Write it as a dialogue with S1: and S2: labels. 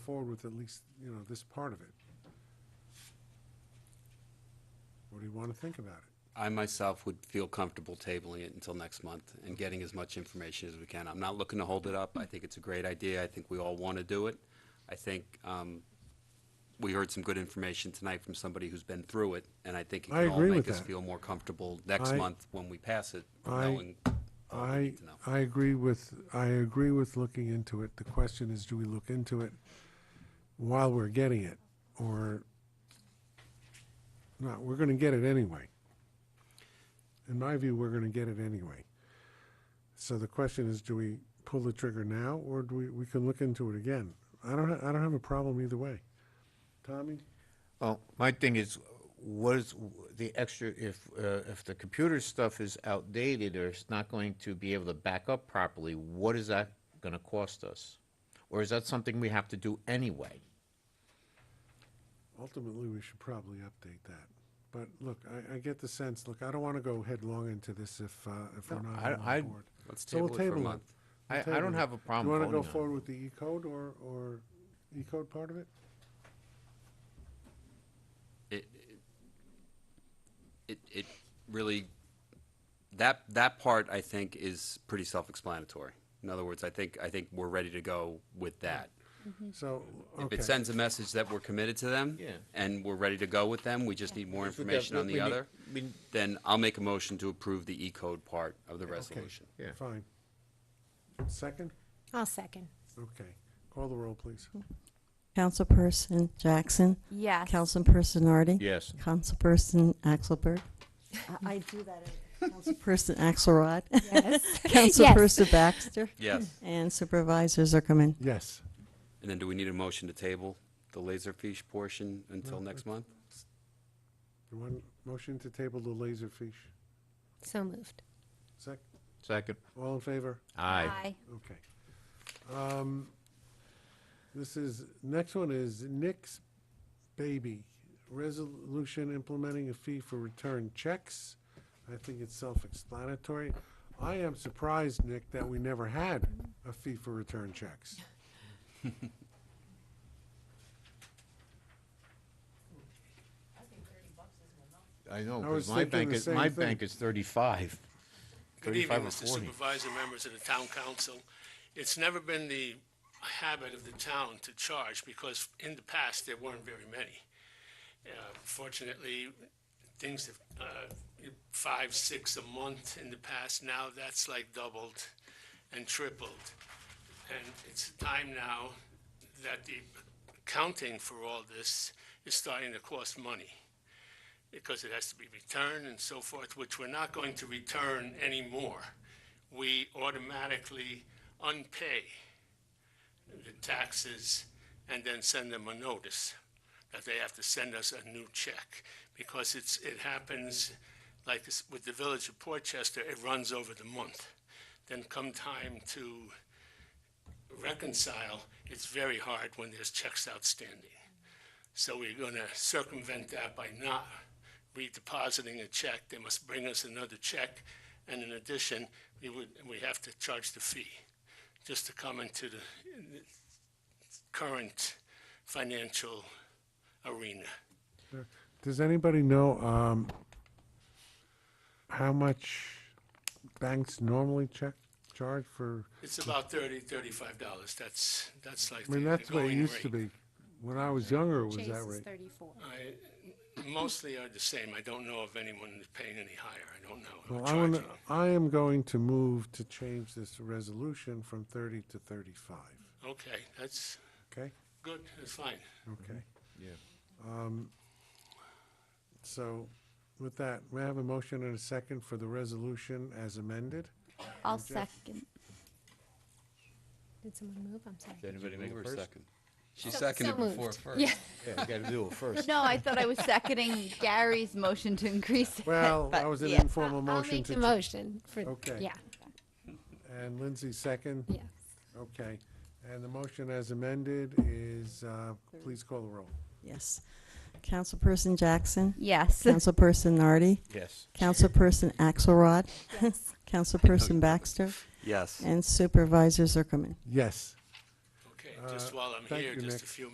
S1: forward with at least, you know, this part of it? What do you want to think about it?
S2: I myself would feel comfortable tabling it until next month and getting as much information as we can. I'm not looking to hold it up. I think it's a great idea. I think we all want to do it. I think um, we heard some good information tonight from somebody who's been through it, and I think it
S1: I
S2: can all
S1: agree
S2: make
S1: with
S2: us
S1: that.
S2: feel more comfortable next
S1: I-
S2: month when we pass it,
S1: I-
S2: knowing all we
S1: I,
S2: need Oh, to know.
S1: I agree with, I agree with looking into it. The question is, do we look into it while we're getting it? Or, no, we're going to get it anyway. In my view, we're going to get it anyway. So the question is, do we pull the trigger now, or do we, we can look into it again? I don't, ha- I don't have a problem either way. Tommy?
S3: Well, my thing is, what is the extra, if, uh, if the computer stuff is outdated or it's not going to be able to back up properly, what is that gonna cost us? Or is that something we have to do anyway?
S1: Ultimately, we should probably update that. But look, I, I get the sense, look, I don't want to go headlong into this if, uh, if we're
S3: No,
S1: not
S3: I-
S1: all
S3: I-
S1: on board.
S2: Let's
S1: So we'll
S2: table it for a
S1: table it.
S2: month.
S1: We'll
S3: I- I
S1: table
S3: don't
S1: it.
S3: have a problem
S1: You want
S3: voting
S1: to go
S3: on
S1: forward
S3: it.
S1: with the E-code or, or E-code part of it?
S2: it, it, it really, that, that part, I think, is pretty self-explanatory. In other words, I think, I think we're ready to go with that.
S1: So,
S2: If
S1: okay.
S2: it sends a message that we're committed to them,
S3: Yeah.
S2: and we're ready to go with them, we just need more information on the other, then I'll make a motion to approve the E-code part of the resolution.
S3: Yeah.
S1: Fine. Second?
S4: I'll second.
S1: Okay. Call the roll, please.
S5: Councilperson Jackson.
S4: Yes.
S5: Councilperson Nardi.
S3: Yes.
S5: Councilperson Axelberg. I- I do that. every- Councilperson Axelrod.
S4: Yes.
S5: Councilperson Baxter.
S2: Yes,
S3: Hmm.
S5: And Supervisor Zuckerman.
S1: Yes.
S2: and then do we need a motion to table the laser fiche portion until next month?
S1: You want motion to table the laser fiche?
S4: So moved.
S1: Sec,
S3: Second.
S1: all in favor?
S3: Aye.
S1: Okay. Um, This is, next one is Nick's Baby, resolution implementing a fee for return checks. I think it's self-explanatory. I am surprised, Nick, that we never had a fee for return checks.
S3: I know,
S1: I was
S3: because my
S1: thinking
S3: bank
S1: the
S3: is,
S1: same
S3: my
S1: thing.
S3: bank is thirty-five.
S6: Good
S3: 35
S6: evening,
S3: or
S6: Mr.
S3: 40.
S6: Supervisor, members of the town council. It's never been the habit of the town to charge because in the past, there weren't very many. Uh, Fortunately, things have, uh, five, six a month in the past, now that's like doubled and tripled. And it's time now that the accounting for all this is starting to cost money because it has to be returned and so forth, which we're not going to return anymore. We automatically unpay the taxes and then send them a notice that they have to send us a new check because it's, it happens like this- with the village of Portchester, it runs over the month. Then come time to reconcile, it's very hard when there's checks outstanding. So we're going to circumvent that by not redepositing a check. They must bring us another check. And in addition, we would, we have to charge the fee just to come into the the current financial arena.
S1: Does anybody know um, how much banks normally check, charge for?
S6: It's about thirty, thirty-five dollars. That's, that's
S1: I
S6: like the the
S1: mean,
S6: going
S1: that's what it used to
S6: rate.
S1: be. When I was younger, it was
S4: Chase
S1: that
S4: is
S1: rate.
S4: thirty-four.
S6: I- Mostly are the same. I don't know of anyone that's paying any higher. I don't know.
S1: Well,
S6: or
S1: I want,
S6: charging.
S1: I am going to move to change this resolution from 30 to 35,
S6: Okay, that's
S1: okay?
S6: good. That's fine.
S1: Okay. Um,
S3: Yeah.
S1: So with that, may I have a motion and a second for the resolution as amended?
S7: I'll second.
S4: Did someone move? I'm sorry.
S3: Anybody make a first?
S2: She
S4: So-
S2: seconded
S4: so
S2: before
S4: moved.
S2: first.
S7: Yeah.
S3: Yeah, you gotta do it first.
S7: No, I thought I was seconding Gary's motion to increase it.
S1: Well,
S7: but
S1: that was an
S7: yeah.
S1: informal
S4: I'll
S1: motion
S4: make
S1: to.
S4: the motion for,
S1: Okay.
S4: yeah,
S1: And Lindsay second?
S4: yes.
S1: Okay. And the motion as amended is, uh, please call the roll.
S5: Yes. Councilperson Jackson.
S7: Yes.
S5: Councilperson Nardi.
S3: Yes.
S5: Councilperson Axelrod. Councilperson Baxter.
S2: Yes.
S5: And Supervisor Zuckerman.
S1: Yes.
S6: Okay. just while I'm
S1: Uh, thank
S6: here,
S1: you,
S6: just a
S1: Nick.
S6: few